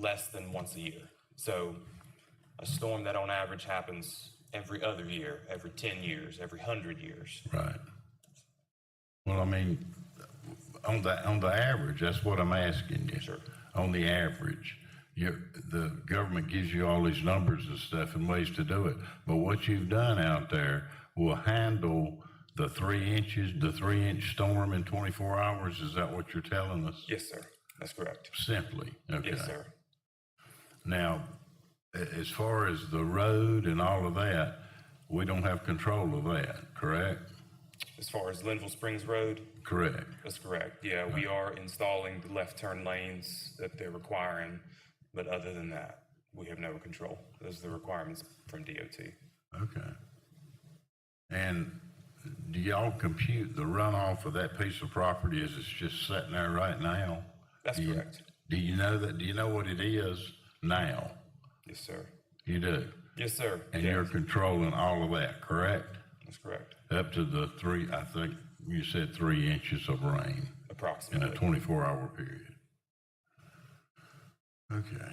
less than once a year. So a storm that on average happens every other year, every 10 years, every 100 years. Right. Well, I mean, on the, on the average, that's what I'm asking you. Sure. On the average, you, the government gives you all these numbers and stuff and ways to do it. But what you've done out there will handle the three inches, the three inch storm in twenty-four hours. Is that what you're telling us? Yes, sir. That's correct. Simply, okay. Yes, sir. Now, a- as far as the road and all of that, we don't have control of that, correct? As far as Linville Springs Road, Correct. that's correct. Yeah, we are installing the left turn lanes that they're requiring. But other than that, we have no control. Those are the requirements from DOT. Okay. And do y'all compute the runoff of that piece of property as it's just sitting there right now? That's Do you- correct. Do you know that, do you know what it is now? Yes, sir. You do? Yes, sir. And you're controlling all of that, correct? That's correct. Up to the three, I think you said three inches of rain in a Approximately. twenty-four hour period. Okay.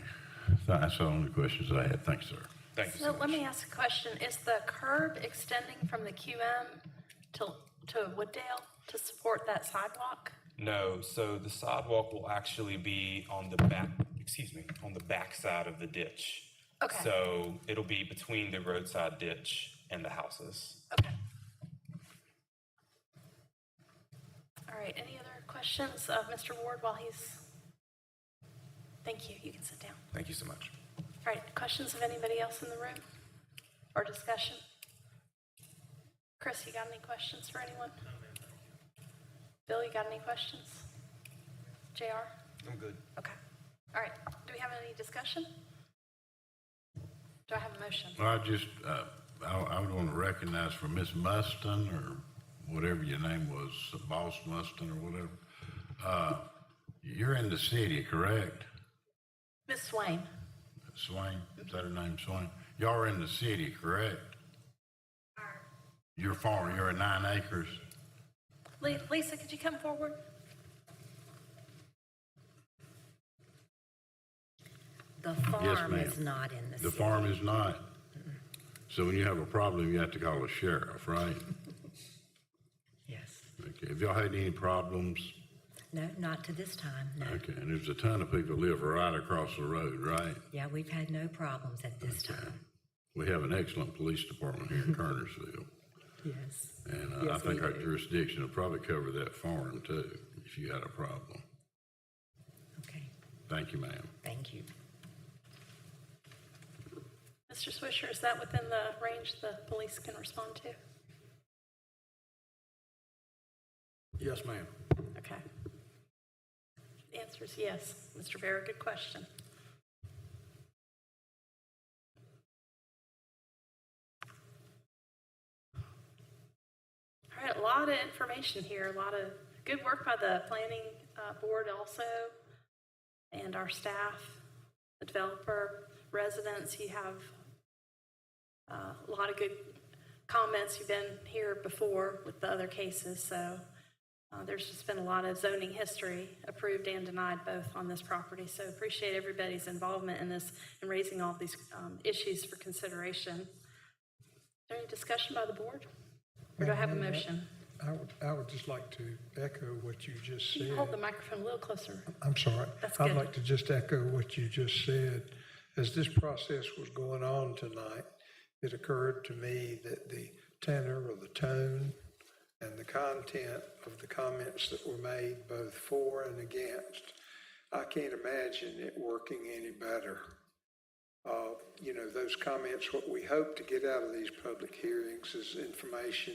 That's all the questions I had. Thanks, sir. Thank you so So much. let me ask a question. Is the curb extending from the QM to, to Wooddale to support that sidewalk? No, so the sidewalk will actually be on the back, excuse me, on the back side of the ditch. Okay. So it'll be between the roadside ditch and the houses. Okay. All right, any other questions of Mr. Ward while he's? Thank you, you can sit down. Thank you so much. All right, questions of anybody else in the room or discussion? Chris, you got any questions for anyone? Bill, you got any questions? JR? I'm good. Okay. All right, do we have any discussion? Do I have a motion? Well, I just, uh, I, I would want to recognize for Miss Mustin or whatever your name was, Boss Mustin or whatever. Uh, you're in the city, correct? Ms. Swain? Swain, is that her name, Swain? Y'all are in the city, correct? You're farm, you're at nine acres. Le- Lisa, could you come forward? The farm ma'am. is not in the The city. farm is not. So when you have a problem, you have to call the sheriff, right? Yes. Okay, have y'all had any problems? No, not to this time, no. Okay, and there's a ton of people live right across the road, right? Yeah, we've had no problems at this time. We have an excellent police department here in Kernersville, Yes. and uh, I Yes, think we our do. jurisdiction will probably cover that farm too, if you had a problem. Okay, Thank you, ma'am. thank you. Mr. Swisher, is that within the range the police can respond to? Yes, ma'am. Okay. The answer is yes. Mr. Vera, good question. All right, a lot of information here, a lot of good work by the planning uh, board also, and our staff, the developer, residents. You have uh, a lot of good comments. You've been here before with the other cases, so uh, There's just been a lot of zoning history, approved and denied both on this property. So appreciate everybody's involvement in this and raising all these um, issues for consideration. Is there any discussion by the board? Or do I have a motion? I would, I would just like to echo what you just Can said. you hold the microphone a little closer? I'm sorry. That's I'd good. like to just echo what you just said. As this process was going on tonight, it occurred to me that the tenor or the tone and the content of the comments that were made, both for and against, I can't imagine it working any better. Uh, You know, those comments, what we hope to get out of these public hearings is information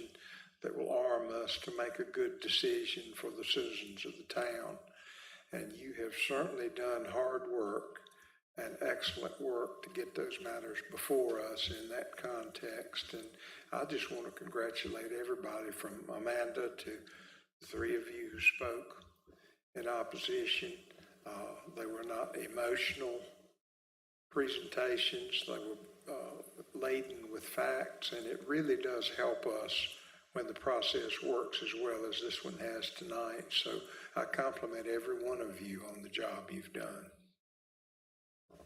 that will arm us to make a good decision for the citizens of the town and you have certainly done hard work and excellent work to get those matters before us in that context. And I just want to congratulate everybody from Amanda to the three of you who spoke in opposition. Uh, They were not emotional presentations, they were uh, laden with facts, and it really does help us when the process works as well as this one has tonight. So I compliment every one of you on the job you've done.